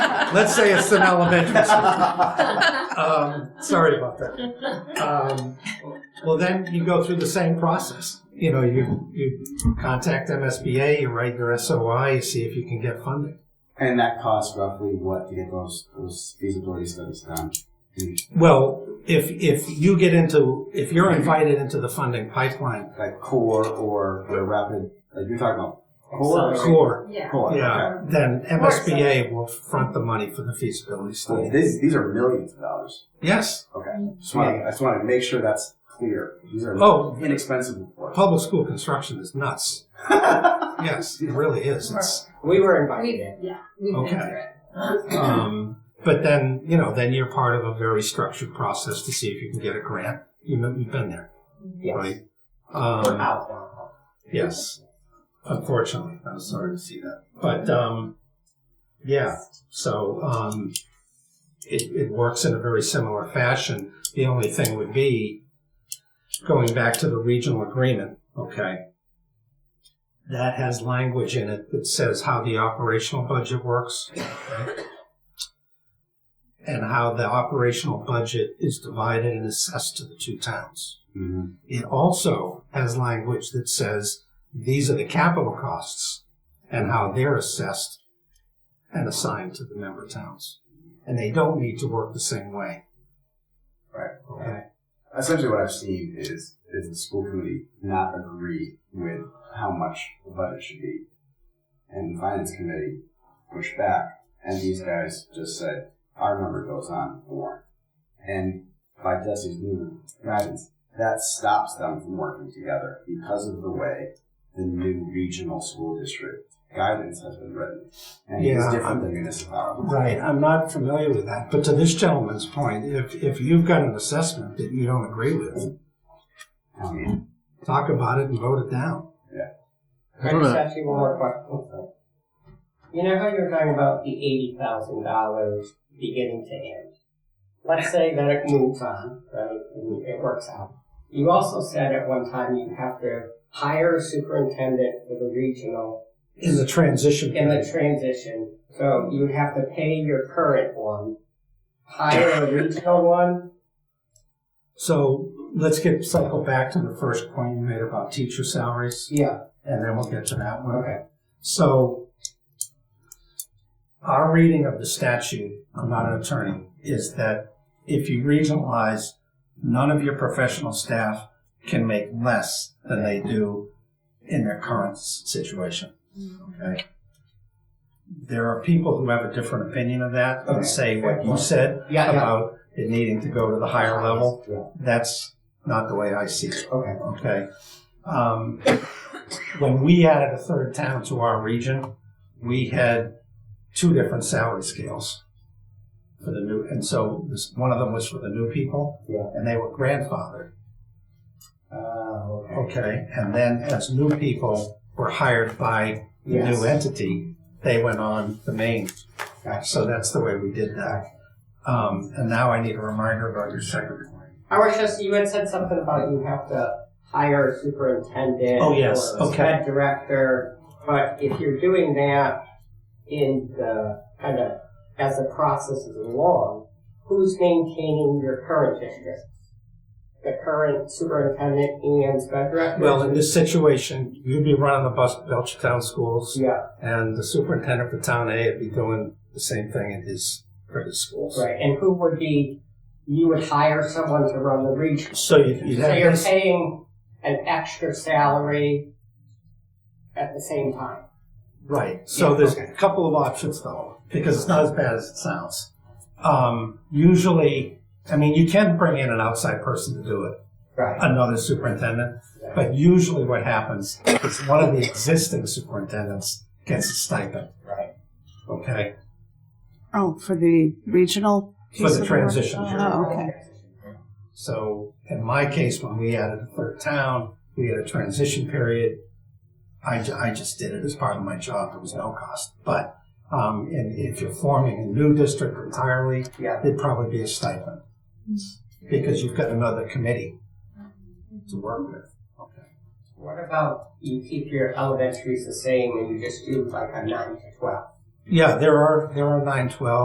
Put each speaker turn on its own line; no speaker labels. Let's say it's an elementary school. Um, sorry about that. Um, well, then you go through the same process. You know, you, you contact MSBA, you write your SOI, you see if you can get funding.
And that costs roughly what to get those those feasibility studies done?
Well, if, if you get into, if you're invited into the funding pipeline,
Like core or the rapid, like you're talking about core?
core,
Yeah.
Core, Oh, okay.
yeah, then MSBA will front the money for the feasibility
So
study.
these, these are millions of dollars.
Yes.
Okay. Just wanna, I just want to make sure that's clear. These are
Oh,
inexpensive reports.
public school construction is nuts. Yes, it really is. It's,
We were
We've,
invited in.
yeah, we've
Okay.
been through it.
um, but then, you know, then you're part of a very structured process to see if you can get a grant. You know, you've been there,
Yes.
right?
We're
Um,
out now.
yes. Unfortunately, I'm sorry to see that. But, um, yeah, so, um, it, it works in a very similar fashion. The only thing would be going back to the regional agreement, okay? That has language in it that says how the operational budget works. and how the operational budget is divided and assessed to the two towns.
Mhm.
It also has language that says these are the capital costs and how they're assessed and assigned to the member towns. And they don't need to work the same way.
Right.
Okay.
Essentially, what I've seen is is the school committee not agree with how much the budget should be, and the finance committee push back, and these guys just said our number goes on the warrant, and by Jesse's new guidance, that stops them from working together because of the way the new regional school district guidance has been written, and it's
Yeah.
different than municipalities.
Right. I'm not familiar with that. But to this gentleman's point, if, if you've got an assessment that you don't agree with,
Um,
talk about it and vote it down.
I just asked you one more question. You know how you were talking about the eighty thousand dollars beginning to end? Let's say that it moves on, right, and it works out. You also said at one time you have to hire a superintendent for the regional
In the transition.
in the transition. So you would have to pay your current one, hire a regional one.
So let's get cycle back to the first point you made about teacher salaries,
Yeah.
and then we'll get to that one.
Okay.
So our reading of the statute, I'm not an attorney, is that if you regionalize, none of your professional staff can make less than they do in their current s- situation. Okay. There are people who have a different opinion of that and say what you said
Yeah, yeah.
about it needing to go to the higher level
Yeah.
that's not the way I see it.
Okay.
Okay. Um, when we added a third town to our region, we had two different salary scales for the new, and so this, one of them was for the new people,
Yeah.
and they were grandfathered.
Oh, okay.
Okay, and then as new people were hired by the
Yes.
new entity, they went on the main. So that's the way we did that. Um, and now I need a reminder about your second point.
I was just, you had said something about you have to hire a superintendent.
Oh, yes.
Or a
Okay.
sped director, but if you're doing that in the, kind of, as the process is along, who's maintaining your current district? The current superintendent and sped director?
Well, in this situation, you'd be running the bus at Belchertown schools,
Yeah,
and the superintendent for Town A would be doing the same thing in his, for his schools.
right, and who would be, you would hire someone to run the region?
So you'd you'd
So
have
you're
this,
paying an extra salary at the same time?
right, so
Yeah,
there's
okay.
a couple of options though, because it's not as bad as it sounds. Um, usually, I mean, you can bring in an outside person to do it,
Right.
another superintendent, but usually what happens is one of the existing superintendents gets a stipend,
Right.
okay?
Oh, for the regional?
For
piece
the
of work?
transition
Oh, okay.
So in my case, when we added a third town, we had a transition period. I, ju- I just did it as part of my job. There was no cost. But um, and if you're forming a new district entirely,
Yeah.
it'd probably be a stipend because you've got another committee to work with. Okay.
What about you keep your elementaries the same and you just do like a nine to twelve?
Yeah, there are there are nine twelve.